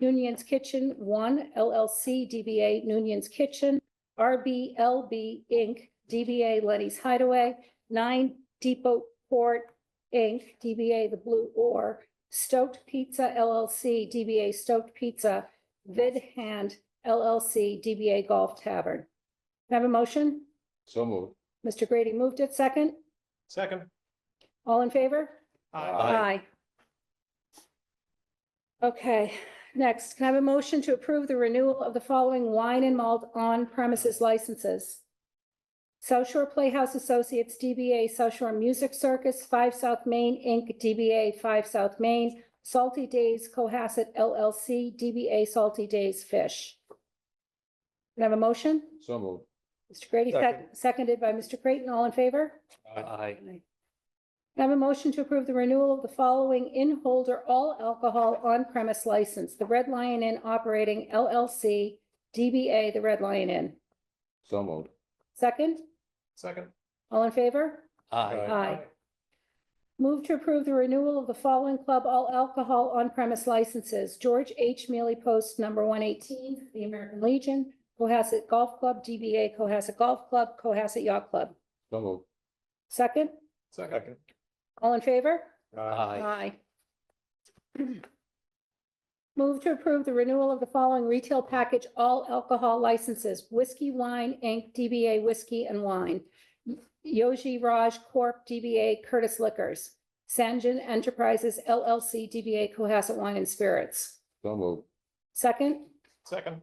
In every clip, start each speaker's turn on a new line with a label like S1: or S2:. S1: Noonan's Kitchen One LLC, DBA Noonan's Kitchen, RBLB Inc., DBA Lenny's Hideaway, Nine Depot Port Inc., DBA The Blue Oar, Stoked Pizza LLC, DBA Stoked Pizza, Vid Hand LLC, DBA Golf Tavern. Can I Have a motion?
S2: So moved.
S1: Mr. Grady moved it second.
S3: Second.
S1: All in favor? Aye. Okay, next, can I have a motion to approve the renewal of the following wine and malt on premises licenses? South Shore Playhouse Associates DBA South Shore Music Circus, Five South Main Inc., DBA Five South Main, Salty Days Cohasset LLC, DBA Salty Days Fish. Can I have a motion?
S2: So moved.
S1: Mr. Grady, sec-
S3: Second.
S1: seconded by Mr. Creighton, all in favor?
S3: Aye.
S1: I have a motion to approve the renewal of the following in-holder all alcohol on-premise license, the Red Lion Inn Operating LLC, DBA The Red Lion Inn.
S2: So moved.
S1: Second,
S3: Second.
S1: all in favor?
S2: Aye.
S1: Aye. Move to approve the renewal of the following club all alcohol on-premise licenses, George H. Mealy Post Number 118, The American Legion, Cohasset Golf Club, DBA Cohasset Golf Club, Cohasset Yacht Club.
S2: So moved.
S1: Second,
S3: Second.
S1: all in favor?
S3: Aye.
S1: Aye. Move to approve the renewal of the following retail package all alcohol licenses, Whiskey Wine Inc., DBA Whiskey and Wine, Yogi Raj Corp., DBA Curtis Liquors, Sanjin Enterprises LLC, DBA Cohasset Wine and Spirits.
S2: So moved.
S1: Second,
S3: Second.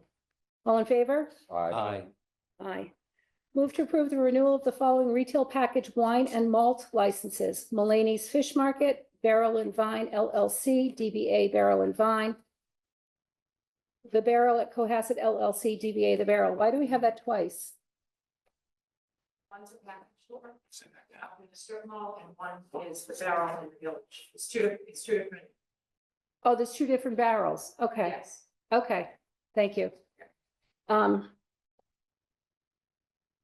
S1: all in favor?
S2: Aye.
S1: Aye. Move to approve the renewal of the following retail package wine and malt licenses. Mulaney's Fish Market, Barrel and Vine LLC, DBA Barrel and Vine. The Barrel at Cohasset LLC, DBA The Barrel. Why do we have that twice?
S4: One's a back door, out um, in the strip mall, and one is the barrel in the village. It's two, it's two different,
S1: Oh, there's two different barrels. Okay,
S4: yes.
S1: okay. Thank you. Um.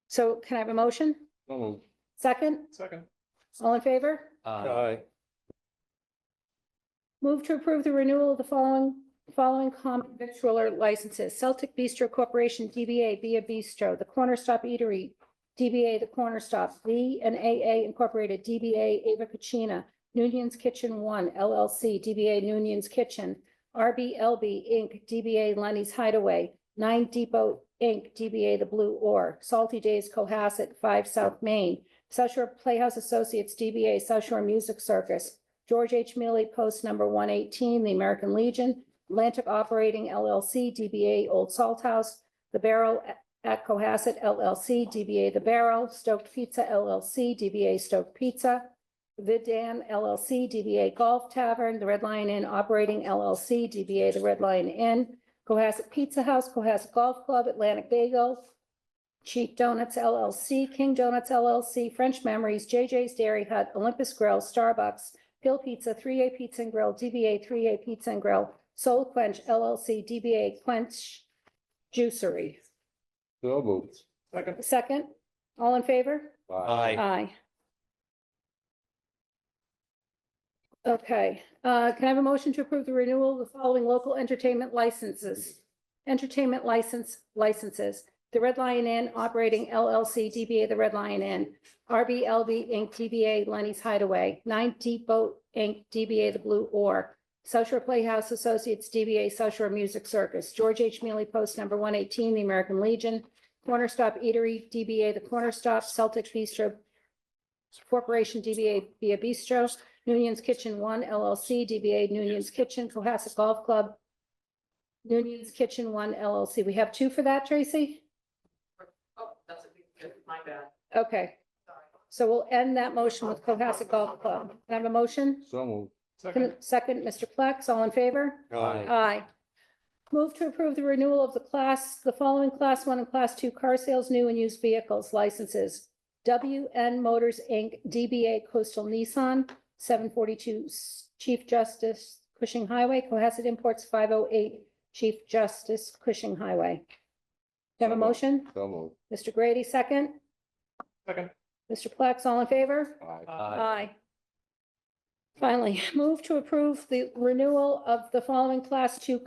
S1: So can I have a motion?
S2: So moved.
S1: Second?
S3: Second.
S1: All in favor?
S2: Aye.
S1: Move to approve the renewal of the following, following common victualler licenses. Celtic Bistro Corporation, DBA Via Bistro, The Corner Stop Eatery, DBA The Corner Stop, V and AA Incorporated, DBA Ava Cucina, Noonan's Kitchen One LLC, DBA Noonan's Kitchen, RBLB Inc., DBA Lenny's Hideaway, Nine Depot Inc., DBA The Blue Oar, Salty Days Cohasset, Five South Main, South Shore Playhouse Associates, DBA South Shore Music Circus, George H. Mealy Post Number 118, The American Legion, Atlantic Operating LLC, DBA Old Salt House, The Barrel at Cohasset LLC, DBA The Barrel, Stoked Pizza LLC, DBA Stoked Pizza, Vidan LLC, DBA Golf Tavern, The Red Lion Inn Operating LLC, DBA The Red Lion Inn, Cohasset Pizza House, Cohasset Golf Club, Atlantic Bagel, Cheap Donuts LLC, King Donuts LLC, French Memories, JJ's Dairy Hut, Olympus Grill, Starbucks, Hill Pizza, 3A Pizza and Grill, DBA 3A Pizza and Grill, Soul Quench LLC, DBA Quench Juicery.
S2: So moved.
S3: Second.
S1: Second, all in favor? Aye. Okay, uh, can I have a motion to approve the renewal of the following local entertainment licenses? Entertainment license, licenses, the Red Lion Inn Operating LLC, DBA The Red Lion Inn, RBLB Inc., DBA Lenny's Hideaway, Nine Depot Inc., DBA The Blue Oar, South Shore Playhouse Associates, DBA South Shore Music Circus, George H. Mealy Post Number 118, The American Legion, Corner Stop Eatery, DBA The Corner Stop, Celtic Bistro Corporation, DBA Via Bistro, Noonan's Kitchen One LLC, DBA Noonan's Kitchen, Cohasset Golf Club, Noonan's Kitchen One LLC. We have two for that, Tracy?
S4: Oh, that's a big, my bad,
S1: Okay,
S4: sorry.
S1: so we'll end that motion with Cohasset Golf Club. Can I have a motion?
S2: So moved.
S3: Second.
S1: Second, Mr. Flex, all in favor?
S3: Aye.
S1: Aye. Move to approve the renewal of the class, the following class one and class two car sales, new and used vehicles licenses. WN Motors, Inc., DBA Coastal Nissan, seven forty-two Chief Justice Cushing Highway, Cohasset Imports, five oh eight Chief Justice Cushing Highway. Do you have a motion?
S2: So moved.
S1: Mr. Grady, second.
S3: Second.
S1: Mr. Plex, all in favor?
S2: Aye.
S3: Aye.
S1: Aye. Finally, move to approve the renewal of the following class two